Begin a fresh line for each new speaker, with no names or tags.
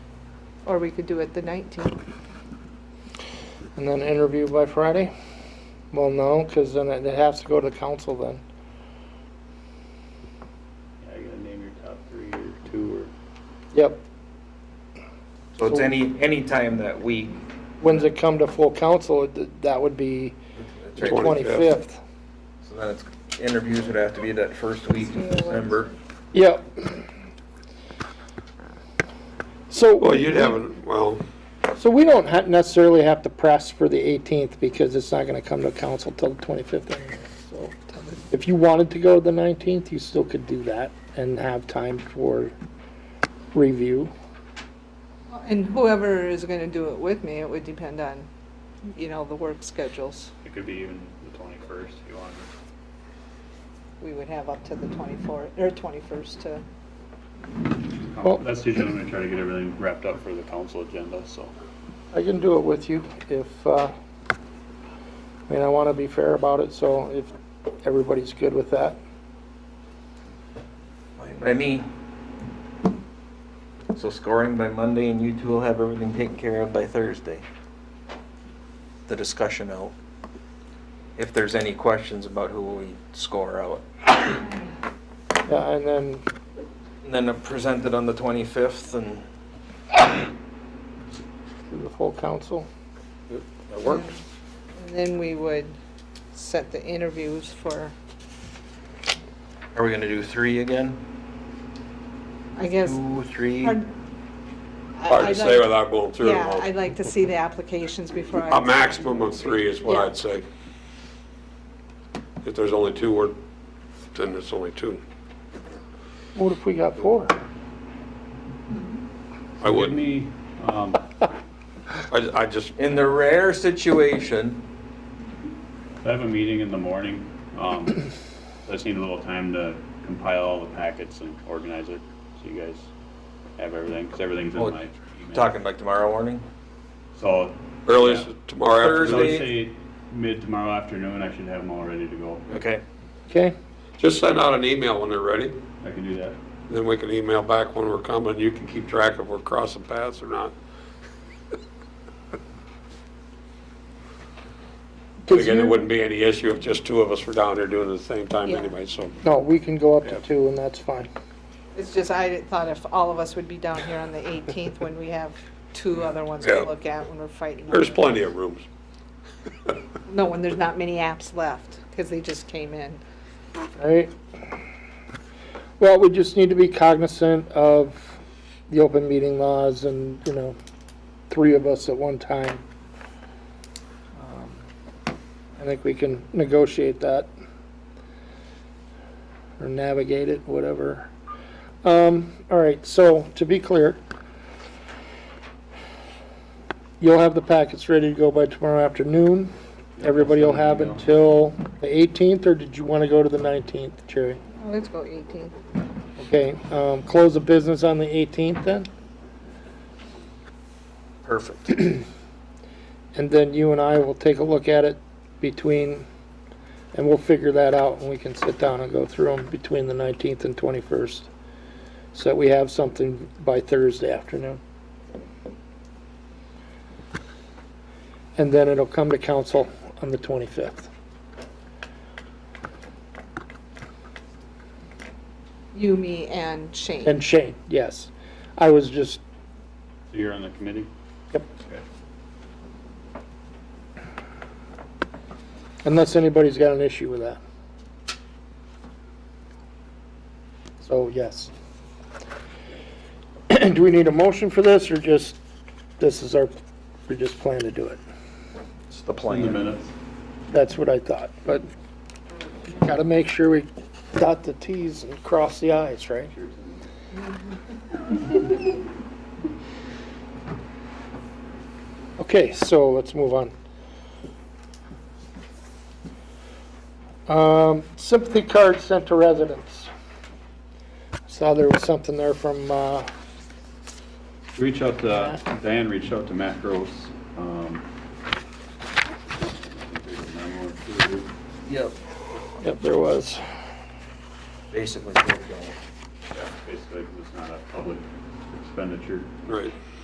Or we could do it the 19th.
And then interview by Friday? Well, no, because then it it has to go to council then.
Yeah, you gotta name your top three or two
Yep.
So it's any, any time that week.
When's it come to full council? Th- That would be the 25th.
So then it's, interviews would have to be that first week in December.
Yep. So.
Well, you'd have, it. well,
So we don't ha- necessarily have to press for the 18th because it's not going to come to council till the 25th anyway. So If you wanted to go to the 19th, you still could do that and have time for review.
And whoever is going to do it with me, it would depend on, you know, the work schedules.
or it could be even the twenty-first if you wanted.
We would have up to the 24th, or 21st to,
Well-
That's usually when we try to get everything wrapped up for the council agenda, so.
I can do it with you if, uh, I mean, I want to be fair about it, so if everybody's good with that.
By me. So scoring by Monday and you two will have everything taken care of by Thursday. The discussion out. If there's any questions about who we score out.
Yeah, And then,
And then present it on the 25th and
to the full council.
it works.
and then we would set the interviews for,
Are we gonna do three again?
I guess.
Two, three?
Hard
hard to say without going through them
Yeah,
all.
I'd like to see the applications before I.
A maximum of three is what
Yeah.
I'd say. If there's only two, we're- then it's only two.
What if we got four?
I
Give
wouldn't,
me, um,
I, I just,
In the rare situation,
I have a meeting in the morning, um, I just need a little time to compile all the packets and organize it, so you guys have everything, because everything's in
Oh,
my email.
talking like tomorrow morning?
So,
earliest
Yeah.
tomorrow
I would
Thursday.
afternoon.
say mid tomorrow afternoon, I should have them all ready to go.
Okay.
Okay?
Just send out an email when they're ready,
I can do that.
then we can email back when we're coming. You can keep track of if we're crossing paths or not. But again, it wouldn't be any issue if just two of us were down there doing it at the same time
Yeah.
anyway, so.
No, we can go up to
Yeah.
two and that's fine.
It's just, I thought if all of us would be down here on the 18th when we have two other ones
Yeah.
to look at when we're fighting.
There's
over-
plenty of rooms.
No, when there's not many apps left, because they just came in.
Right. Well, we just need to be cognizant of the open meeting laws and, you know, three of us at one time. Um, I think we can negotiate that. Or navigate it, whatever. Um, all right, so to be clear, you'll have the packets ready to go by tomorrow afternoon. Everybody will have until the 18th, or did you want to go to the 19th, Jerry?
Oh, Let's go 18th.
Okay, um, close the business on the 18th then,
Perfect.
and then you and I will take a look at it between, and we'll figure that out, and we can sit down and go through them between the 19th and 21st, so that we have something by Thursday afternoon. And then it'll come to council on the 25th.
You, me, and Shane.
And Shane, yes. I was just,
So you're on the committee?
yep.
Okay.
Unless anybody's got an issue with that. So, yes. Do we need a motion for this, or just, this is our, we just plan to do it?
It's the
In the
plan.
minutes.
That's what I thought, but gotta make sure we dot the Ts and cross the Is, right? Okay, so let's move on. Um, sympathy cards sent to residents. Saw there was something there from, uh,
Reach out to, Diane reached out to Matt Gross. um,
Yep.
yep, there was.
Basically, here we go.
yeah, Basically, it's not a public expenditure.
Right.